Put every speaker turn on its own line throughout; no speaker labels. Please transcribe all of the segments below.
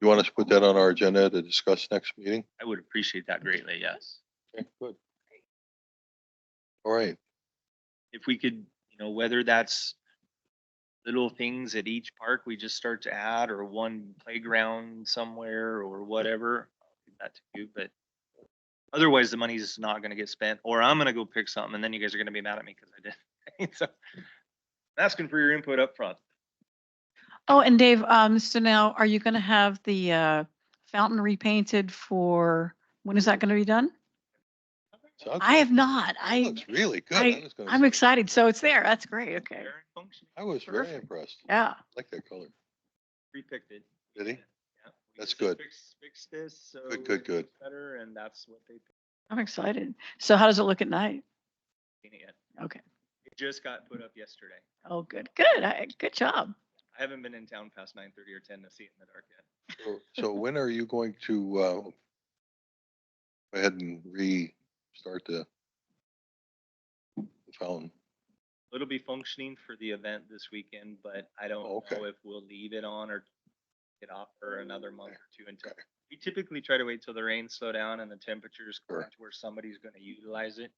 You want us to put that on our agenda to discuss next meeting?
I would appreciate that greatly, yes.
Okay, good. All right,
If we could, you know, whether that's little things at each park we just start to add or one playground somewhere or whatever, I'll leave that to you, but otherwise the money's not gonna get spent or I'm gonna go pick something and then you guys are gonna be mad at me because I did. So I'm Asking for your input up front.
Oh, and Dave, um, so now are you gonna have the, uh, fountain repainted for, when is that gonna be done?
sounds,
I have not. I,
looks really good.
I-
I was gonna
I'm
say,
excited. So it's there. That's great. Okay.
Fair and functioning.
I was very
perfect.
impressed. I
Yeah.
like that color.
Repicked it.
Did he?
Yeah. We
That's
just
good.
fixed- Fixed this, so.
Good,
it
good,
looks
good.
Better, and that's what they
I'm excited. So how does it look at night?
painted it.
Okay.
It just got put up yesterday.
Oh, good, good. I, good job.
I haven't been in town past nine thirty or ten to see it in the dark yet.
So- So when are you going to, uh, go ahead and restart the the fountain?
It'll be functioning for the event this weekend, but I don't
Oh, okay.
know if we'll leave it on or get off for another month or two until.
Okay.
We typically try to wait till the rains slow down and the temperatures
Sure.
correct where somebody's gonna utilize it.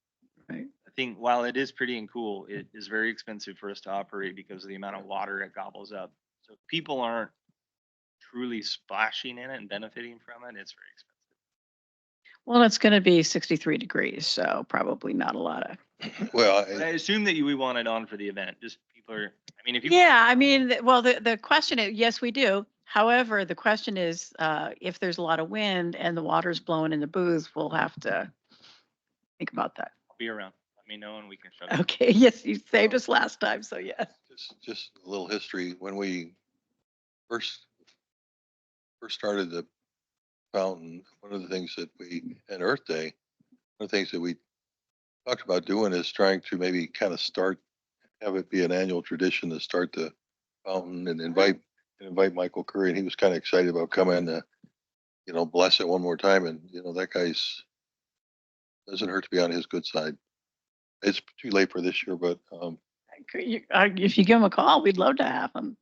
Right.
I think while it is pretty and cool, it is very expensive for us to operate because of the amount of water it gobbles up. So if people aren't truly splashing in it and benefiting from it, it's very expensive.
Well, it's gonna be sixty-three degrees, so probably not a lot of.
Well,
But I
I-
assume that you, we want it on for the event, just people are, I mean, if you.
Yeah, I mean, th- well, the, the question is, yes, we do. However, the question is, uh, if there's a lot of wind and the water's blowing in the booth, we'll have to think about that.
be around. Let me know and we can shut it.
Okay, yes, you saved us last time, so yes.
just, just a little history. When we first, first started the fountain, one of the things that we, at Earth Day, one of the things that we talked about doing is trying to maybe kind of start, have it be an annual tradition to start the fountain and invite, and invite Michael Curry. And he was kind of excited about coming to, you know, bless it one more time. And, you know, that guy's, doesn't hurt to be on his good side. It's too late for this year, but, um,
Could you- uh, If you give them a call, we'd love to have them.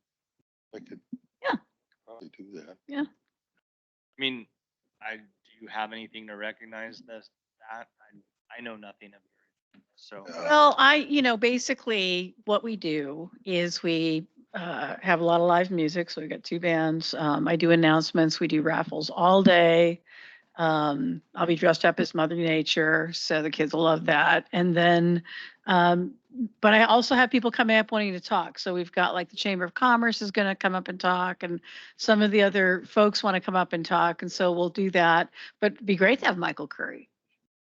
I could.
Yeah.
Probably do that.
I mean, I, do you have anything to recognize this, that? I, I know nothing of your, so.
Yeah.
Well, I, you know, basically what we do is we uh, have a lot of live music. So we've got two bands. Um, I do announcements. We do raffles all day. Um, I'll be dressed up as Mother Nature. So the kids will love that. And then, um, but I also have people coming up wanting to talk. So we've got like the Chamber of Commerce is going to come up and talk and some of the other folks want to come up and talk. And so we'll do that. But it'd be great to have Michael Curry.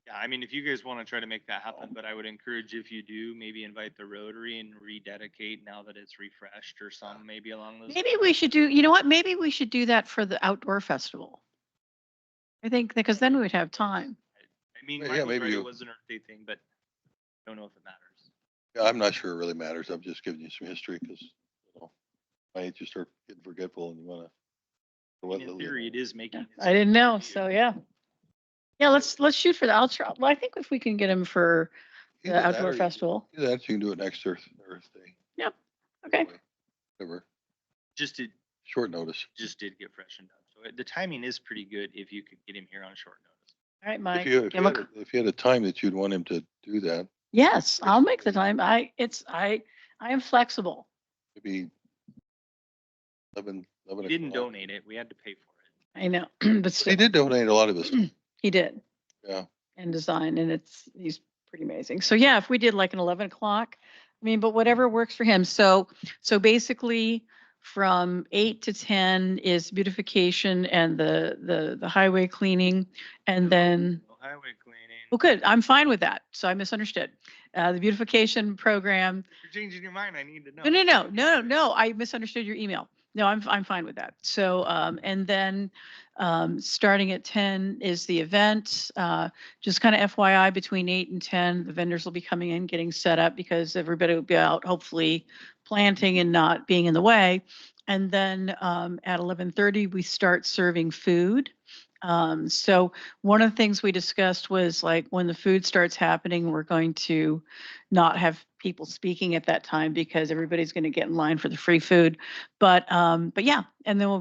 Yeah, I mean, if you guys want to try to make that happen, but I would encourage if you do, maybe invite the Rotary and rededicate now that it's refreshed or some, maybe along those.
Maybe we should do, you know what, maybe we should do that for the outdoor festival. I think, because then we would have time.
I mean,
Yeah,
Michael's
maybe
right,
you-
it was an Earth Day thing, but don't know if it matters.
Yeah, I'm not sure it really matters. I'm just giving you some history because, you know, I hate you start getting forgetful and you wanna.
I mean, In theory, it is making. its
I didn't
way
know,
to you.
so yeah. Yeah, let's, let's shoot for the outdoor, well, I think if we can get him for the outdoor festival,
Either that, or you can do it next Earth, Earth Day.
Yep, okay.
Whatever,
Just did,
short notice.
just did get freshened up. So it- the timing is pretty good if you could get him here on short notice.
all right,
If
Mike.
you, if
give
you
him a
had
c-
a- if you had a time that you'd want him to do that,
Yes, I'll make the time, I, it's, I, I am flexible.
it'd be eleven, eleven.
We didn't
o'clock.
donate it. We had to pay for it.
I know, but
He
still,
did donate a lot of his,
he did,
yeah.
and design, and it's, he's pretty amazing. So yeah, if we did like an eleven o'clock, I mean, but whatever works for him. So, so basically, from eight to ten is beautification and the, the, the highway cleaning. And then,
No Highway cleaning.
Hmm. well, good, I'm fine with that. So I misunderstood. Uh, the beautification program.
You're changing your mind. I need to know.
No, no, no, no, no, no, I misunderstood your email. No, I'm, I'm fine with that. So, um, and then, um, starting at ten is the event. Uh, just kind of FYI, between eight and ten, the vendors will be coming in, getting set up because everybody will be out, hopefully planting and not being in the way. And then, um, at eleven thirty, we start serving food. Um, so one of the things we discussed was like, when the food starts happening, we're going to not have people speaking at that time because everybody's going to get in line for the free food. But, um, but yeah, and then we'll